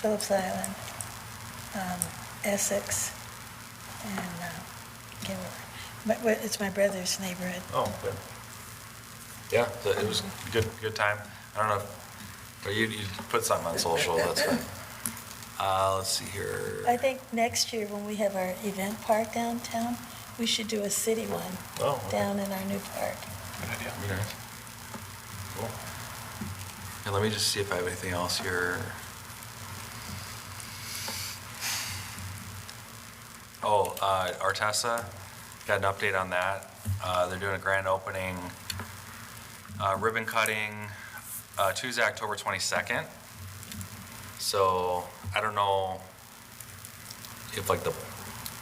Phillips Island, um, Essex, and uh, Gilroy. But but it's my brother's neighborhood. Oh, good. Yeah, so it was good, good time. I don't know, if- but you, you put something on social, that's fine. Uh, let's see here. I think next year, when we have our event park downtown, we should do a city one Oh, okay. down in our new park. Good idea. Be nice. Cool. And let me just see if I have anything else here. Oh, uh, Artesa, got an update on that. Uh, they're doing a grand opening, uh, ribbon cutting, uh, Tuesday, October 22nd. So I don't know if like the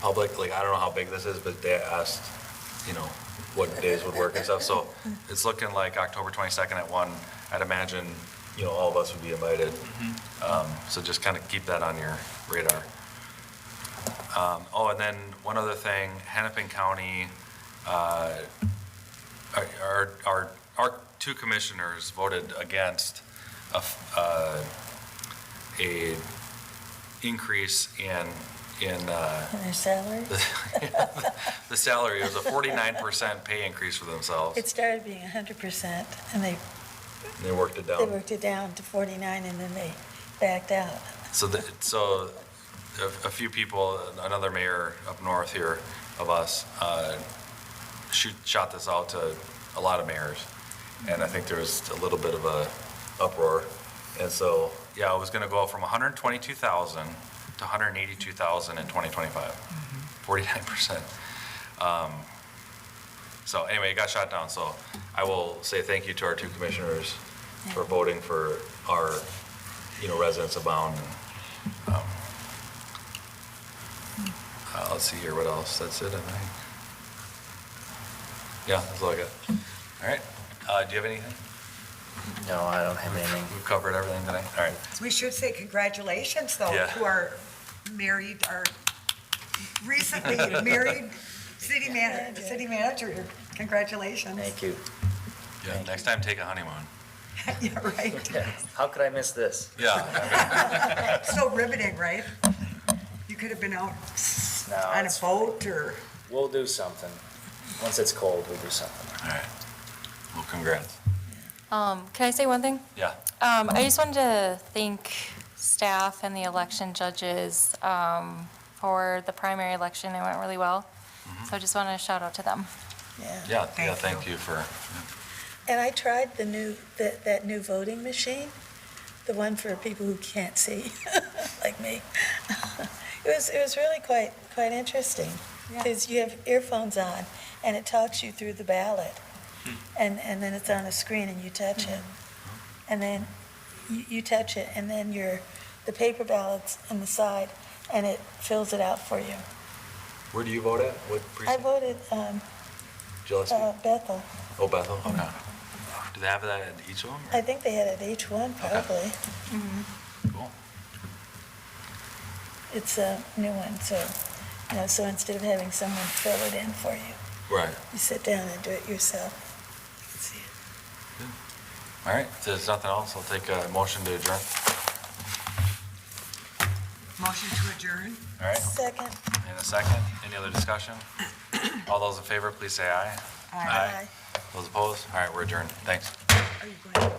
public, like, I don't know how big this is, but they asked, you know, what days would work and stuff. So it's looking like October 22nd at one. I'd imagine, you know, all of us would be invited. Um, So just kind of keep that on your radar. Um, Oh, and then one other thing, Hennepin County, uh, our- our, our, our two commissioners voted against a, f- uh, a increase in, in uh, And their salary, the salary. It was a 49% pay increase for themselves. it started being 100%, and they And They worked it They down. worked it down to 49 and then they backed out. So, the- so a a few people, another mayor up north here of us, uh, shoot, shot this out to a lot of mayors. And I think there was a little bit of a uproar. And so, yeah, it was going to go from 122,000 to 182,000 in 2025, 49%. Um, So anyway, it got shot down, so I will say thank you to our two commissioners for voting for our, you know, residents of Bound. and, um, uh, Let's see here, what else? That's it, I think. Yeah, that's all I got. All right, Uh, do you have anything? No, I don't have anything. We've covered everything tonight, all right. We should say congratulations, though, Yeah. to our married, our recently married city man, city manager. Congratulations. Thank you. Yeah, next time, take a honeymoon. Yeah, right. How could I miss this? Yeah, So riveting, right? You could have been out s- No, on a it's- boat or, We'll do something. Once it's cold, we'll do something. all right. Well, congrats. Um, Can I say one thing? Yeah, Um, I just wanted to thank staff and the election judges um, for the primary election. It went really well. So I just wanted to shout out to them. Yeah. yeah, yeah, Thank thank you for, And I tried the new, that, that new voting machine, the one for people who can't see, like me. It was, it was really quite, quite interesting. Because you have earphones on and it talks you through the ballot. And, and then it's on a screen and you touch it. And then you, you touch it and then your, the paper ballot's on the side and it fills it out for you. where do you vote at? What I precinct? voted um, Gillespie? uh, Bethel. Oh, Bethel, okay. Do they have that at each of them? I think they had it at each one, probably. Cool. It's a new one, so, you know, so instead of having someone fill it in for you, Right. you sit down and do it yourself. All right, if there's nothing else, I'll take a motion to adjourn. motion to adjourn? All right, Second. in a second. Any other discussion? All those in favor, please say aye. Aye. Those opposed? All right, we're adjourned. Thanks. Are you going?